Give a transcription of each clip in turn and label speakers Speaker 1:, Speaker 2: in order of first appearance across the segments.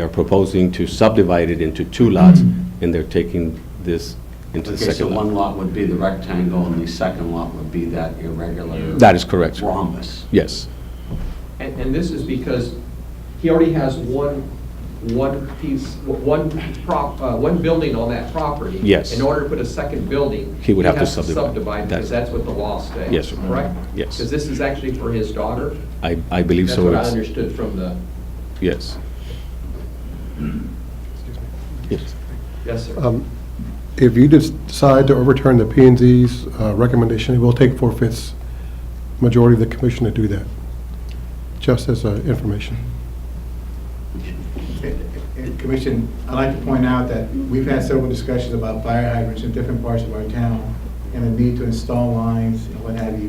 Speaker 1: They are proposing to subdivide it into two lots,
Speaker 2: Mm-hmm.
Speaker 1: and they're taking this into the
Speaker 3: Okay, so
Speaker 1: second lot.
Speaker 3: one lot would be the rectangle, and the second lot would be that irregular
Speaker 1: That is correct, sir.
Speaker 3: rhombus.
Speaker 1: Yes,
Speaker 4: And, and this is because he already has one, one piece, one prop, uh, one building on that property.
Speaker 1: Yes.
Speaker 4: In order to put a second building.
Speaker 1: He would have to subdivide.
Speaker 4: subdivide because
Speaker 1: That's-
Speaker 4: that's what the law states.
Speaker 1: Yes, sir.
Speaker 4: Correct?
Speaker 1: Yes.
Speaker 4: Because this is actually for his daughter.
Speaker 1: I, I believe
Speaker 4: That's
Speaker 1: so.
Speaker 4: what I
Speaker 1: yes.
Speaker 4: understood from the,
Speaker 1: Yes. Yes.
Speaker 4: yes, sir.
Speaker 5: Um, If you des- decide to overturn the p and Z's uh, recommendation, it will take four-fifths majority of the commission to do that, just as uh, information.
Speaker 6: And Commission, I'd like to point out that we've had several discussions about fire hydrants in different parts of our town and the need to install lines and what have you.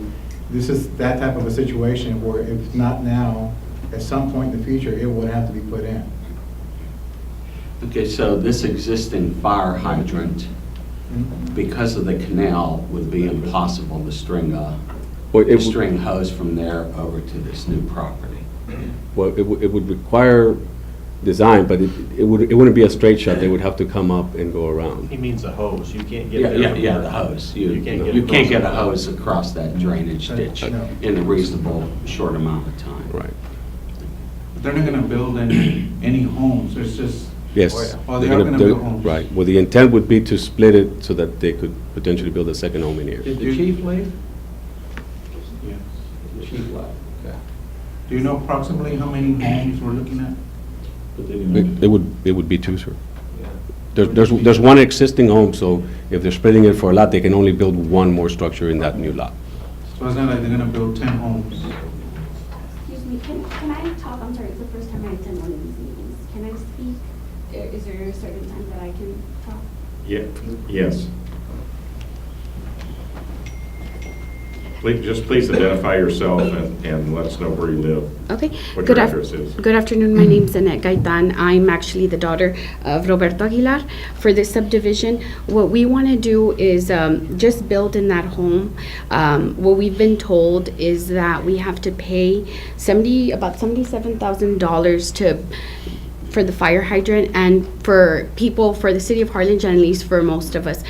Speaker 6: This is that type of a situation where if not now, at some point in the future, it would have to be put in.
Speaker 3: Okay, so this existing fire hydrant, because of the canal, would be impossible to string a,
Speaker 1: Well, it
Speaker 3: to
Speaker 1: would-
Speaker 3: string hose from there over to this new property.
Speaker 1: Well, it would, it would require design, but it, it would, it wouldn't be a straight shot. They would have to come up and go
Speaker 7: He
Speaker 1: around.
Speaker 7: means a hose, you can't get
Speaker 3: Yeah,
Speaker 7: there.
Speaker 3: yeah, yeah, the hose. You,
Speaker 7: You can't get
Speaker 3: you can't
Speaker 7: across
Speaker 3: get a
Speaker 7: it.
Speaker 3: hose across that drainage ditch
Speaker 6: No.
Speaker 3: in a reasonable, short amount of time.
Speaker 1: Right,
Speaker 2: They're not gonna build any, any homes, it's just.
Speaker 1: yes.
Speaker 2: Oh, they
Speaker 1: They're
Speaker 2: are gonna build
Speaker 1: they're-
Speaker 2: homes.
Speaker 1: Right, well, the intent would be to split it so that they could potentially build a second home in here.
Speaker 4: Did the chief leave?
Speaker 2: Yeah.
Speaker 4: The chief left. Okay.
Speaker 2: Do you know approximately how many homes we're looking at?
Speaker 1: It it would, it would be two, sir. There's, there's, there's one existing home, so if they're splitting it for a lot, they can only build one more structure in that new lot.
Speaker 2: So it's not like they're gonna build ten homes.
Speaker 8: Excuse me, can, can I talk? I'm sorry, it's the first time I attend one of these meetings. Can I speak? There- Is there a certain time that I can talk?
Speaker 9: Yeah, yes. Please, just please identify yourself and, and let us know where you live.
Speaker 8: Okay.
Speaker 9: What
Speaker 8: Good
Speaker 9: your
Speaker 8: af-
Speaker 9: address is. Mm-hmm.
Speaker 8: Good afternoon, my name's Annette Gaitan. I'm actually the daughter of Roberto Aguilar. For this subdivision, what we want to do is um, just build in that home. Um, What we've been told is that we have to pay 70, about $77,000 to, for the fire hydrant and for people, for the city of Harlingen, at least for most of us,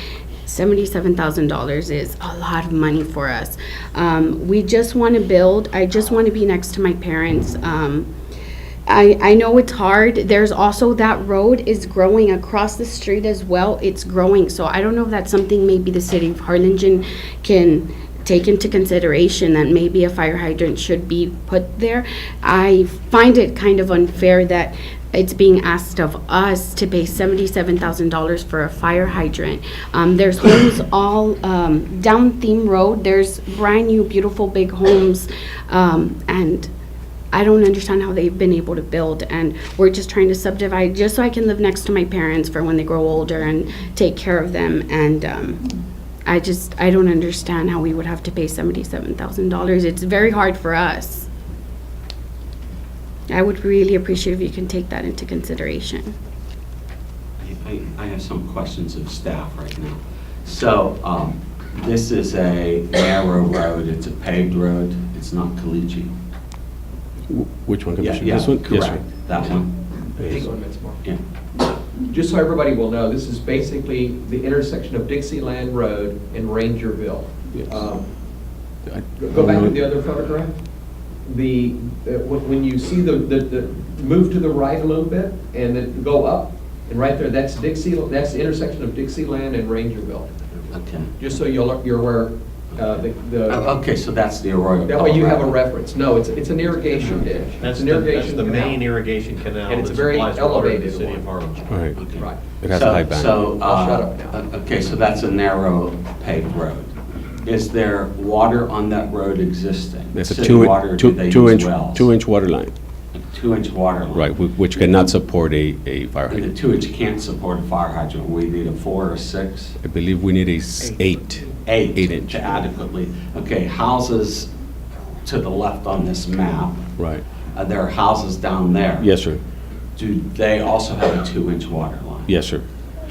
Speaker 8: $77,000 is a lot of money for us. Um, We just want to build, I just want to be next to my parents. Um, I, I know it's hard. There's also that road is growing across the street as well. It's growing. So I don't know if that's something maybe the city of Harlingen can take into consideration that maybe a fire hydrant should be put there. I find it kind of unfair that it's being asked of us to pay seventy-seven thousand dollars for a fire hydrant. Um, there's homes all, um, down Theme Road. There's brand-new, beautiful, big homes. Um, and I don't understand how they've been able to build, and we're just trying to subdivide just so I can live next to my parents for when they grow older and take care of them. And um, I just, I don't understand how we would have to pay seventy-seven thousand dollars. It's very hard for us. I would really appreciate if you can take that into consideration.
Speaker 3: I, I have some questions of staff right now. So, um, this is a narrow road, it's a paved road, it's not collegial.
Speaker 1: Wh- Which one,
Speaker 3: Yeah,
Speaker 1: Commissioner?
Speaker 3: yeah,
Speaker 1: This one? Yes, sir.
Speaker 3: Correct, that one,
Speaker 4: Hang on a minute more.
Speaker 3: yeah.
Speaker 4: Just so everybody will know, this is basically the intersection of Dixieland Road and Rangerville.
Speaker 1: Yes.
Speaker 4: Um,
Speaker 1: I-
Speaker 4: Go back to
Speaker 1: Um,
Speaker 4: the other photograph. The, uh, when when you see the, the, the move to the right a little bit and then go up, and right there, that's Dixie, that's the intersection of Dixieland and Rangerville.
Speaker 3: Okay.
Speaker 4: Just so you're, you're aware, uh, the-
Speaker 3: Oh,
Speaker 4: the,
Speaker 3: Okay, so that's the Arroyo.
Speaker 4: that way you have a
Speaker 3: Colorado.
Speaker 4: reference. No, it's, it's an irrigation ditch.
Speaker 7: That's
Speaker 4: It's
Speaker 7: the,
Speaker 4: an
Speaker 7: that's
Speaker 4: irrigation
Speaker 7: the
Speaker 4: canal.
Speaker 7: main irrigation canal
Speaker 4: And
Speaker 7: that
Speaker 4: it's a very
Speaker 7: supplies water to the
Speaker 4: elevated
Speaker 7: city
Speaker 4: one.
Speaker 7: of Harlingen.
Speaker 1: All right,
Speaker 3: Okay.
Speaker 4: Right.
Speaker 1: it has a
Speaker 3: So-
Speaker 1: high bank.
Speaker 3: So,
Speaker 4: I'll shut
Speaker 3: uh,
Speaker 4: up now.
Speaker 3: okay, so that's a narrow paved road. Is there water on that road existing?
Speaker 1: There's a
Speaker 3: City
Speaker 1: two,
Speaker 3: water,
Speaker 1: in-
Speaker 3: do they
Speaker 1: two, two
Speaker 3: use
Speaker 1: inch,
Speaker 3: wells?
Speaker 1: two inch water line,
Speaker 3: Two-inch water line.
Speaker 1: right, wh- which cannot support a, a fire
Speaker 3: And the
Speaker 1: hydrant.
Speaker 3: two-inch can't support a fire hydrant, we need a four or six?
Speaker 1: I believe we need a s- eight.
Speaker 3: Eight.
Speaker 1: Eight inch.
Speaker 3: To adequately, okay, houses to the left on this map,
Speaker 1: Right,
Speaker 3: uh, there are houses down there.
Speaker 1: yes, sir,
Speaker 3: Do they also have a two-inch water line?
Speaker 1: yes, sir.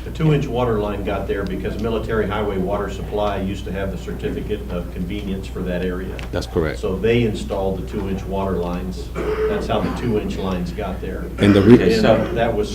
Speaker 7: The two-inch water line got there because Military Highway Water Supply used to have the certificate of convenience for that area.
Speaker 1: That's correct.
Speaker 7: So they installed the two-inch water lines. That's how the two-inch lines got there.
Speaker 1: And the re-
Speaker 7: And that was